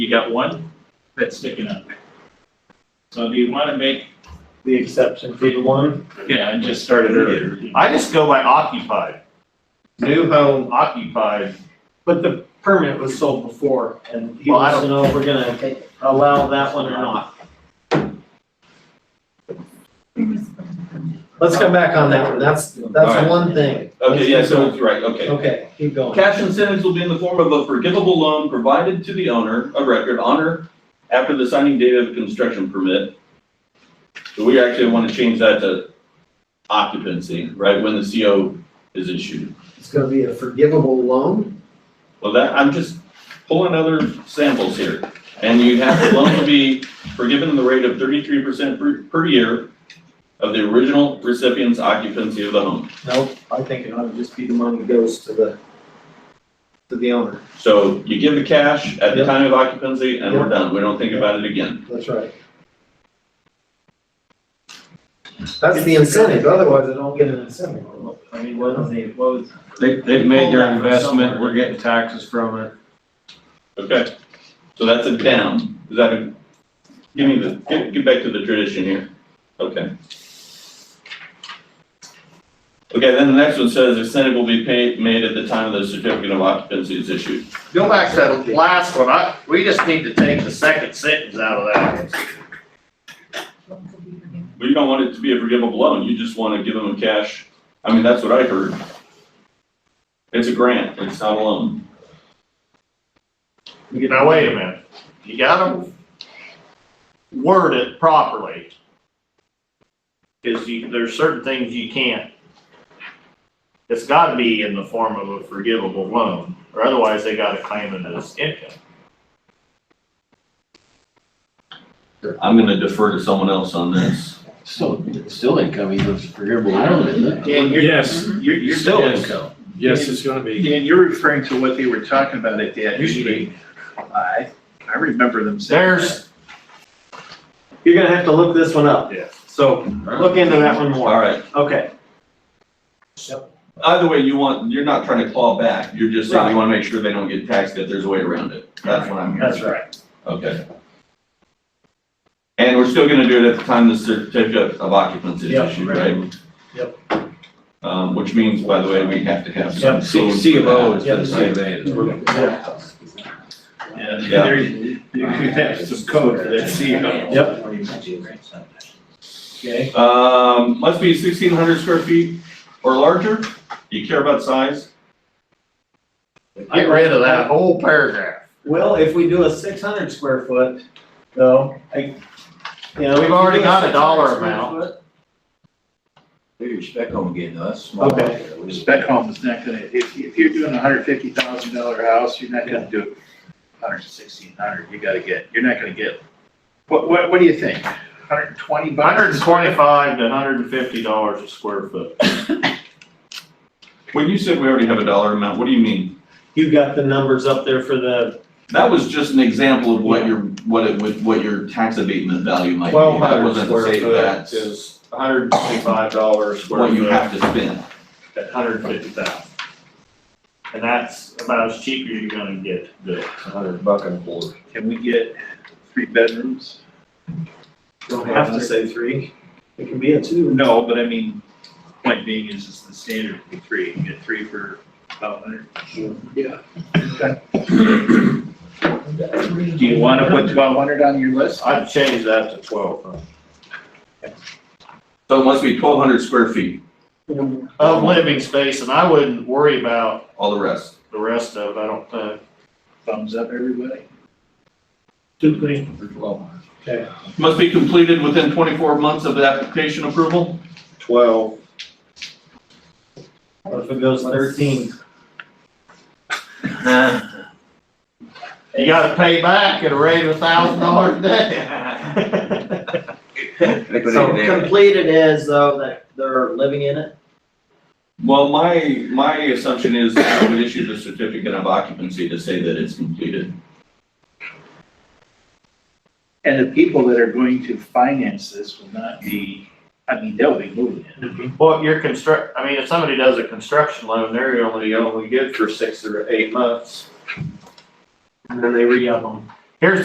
You got one that's sticking up. So do you wanna make, the exception fee to one. yeah, I just started earlier. I just go by occupied, New home, occupied, but the permit was sold before and he Well, I wants to know if we're gonna allow that one or not. Let's come back on that one. That's, that's Alright. one thing. Okay, yeah, so it's right, okay. Okay, keep going. Cash incentives will be in the form of a forgivable loan provided to the owner of record on or after the signing date of a construction permit. So we actually want to change that to occupancy, right, when the CO is issued. It's gonna be a forgivable loan? Well, that, I'm just pulling other samples here. And you have the loan to be forgiven in the rate of thirty-three percent per, per year of the original recipient's occupancy of the home. Nope, I think it ought to just be the money goes to the, to the owner. So you give the cash at the Yep. time of occupancy and we're done. We don't think about it again. That's right. That's the incentive, otherwise I don't get an incentive. I mean, what was the, what was? They, they've made their investment, we're getting taxes from it. Okay, so that's a down, is that a, give me the, get, get back to the tradition here, okay. Okay, then the next one says incentive will be paid, made at the time the certificate of occupancy is issued. go back to that last one, I, we just need to take the second sentence out of that. But you don't want it to be a forgivable loan, you just wanna give them cash, I mean, that's what I heard. It's a grant, it's not a loan. Now, wait a minute, you gotta word it properly. Cause you, there's certain things you can't. It's gotta be in the form of a forgivable loan, or otherwise they gotta claim it as income. I'm gonna defer to someone else on this. Still, still income, even if it's forgivable. I don't know. Dan, you're, Yes. you're, you're. Still income. Yes, it's gonna be. Dan, you're referring to what they were talking about at that Used to be. meeting. I, I remember them saying. There's, You're gonna have to look this one up. Yeah. So look into that one more. Alright, Okay, either way, you want, you're not trying to claw back, you're just saying you wanna make sure they don't get taxed, that there's a way around it, that's what I'm hearing. that's right. Okay. And we're still gonna do it at the time the certificate of occupancy Yep, is issued, right. right? Yep. Um, which means, by the way, we have to have some. Yep. code C, for C of O that. is the same Yeah. Yeah, Yeah. there, you you have some code for that CO. Okay, Um, must be sixteen hundred square feet or larger, you care about size? get rid of that whole paragraph. well, if we do a six hundred square foot, though, I, you know. We've if we already do got a 600 dollar square amount. foot- Your spec home again, that's Okay. Spec home is not gonna, if, if you're doing a hundred fifty thousand dollar house, you're not gonna do hundred sixteen hundred, you gotta get, you're not gonna get, what, what, what do you think? Hundred and twenty bucks? Hundred and twenty-five to hundred and fifty dollars a square foot. When you said we already have a dollar amount, what do you mean? You got the numbers up there for the, That was just an example of what your, what it, would- what your tax abatement value might be. Twelve That hundred wasn't to square say foot that's is hundred and twenty-five dollars square What you foot have to spend. at hundred and fifty thousand. And that's about as cheap as you're gonna get, the Hundred buck and four. Can we get three bedrooms? don't have to say three, it can be a two. No, but I mean, point being is it's the standard for three, you get three for about hundred. Do you wanna put twelve hundred on your list? I'd change that to twelve hundred. So it must be twelve hundred square feet, Of living space, and I wouldn't worry about all the rest. the rest of it, I don't think. Thumbs up, everybody. Two, three. Must be completed within twenty-four months of the application approval? Twelve. What if it goes thirteen? You gotta pay back at a rate of a thousand dollars a day. So completed is though that they're living in it? Well, my, my assumption is that I would issue the certificate of occupancy to say that it's completed. And the people that are going to finance this will not be, I mean, they'll be moving in. Well, your construct, I mean, if somebody does a construction loan, they're only, only good for six or eight months. And then they re-up them.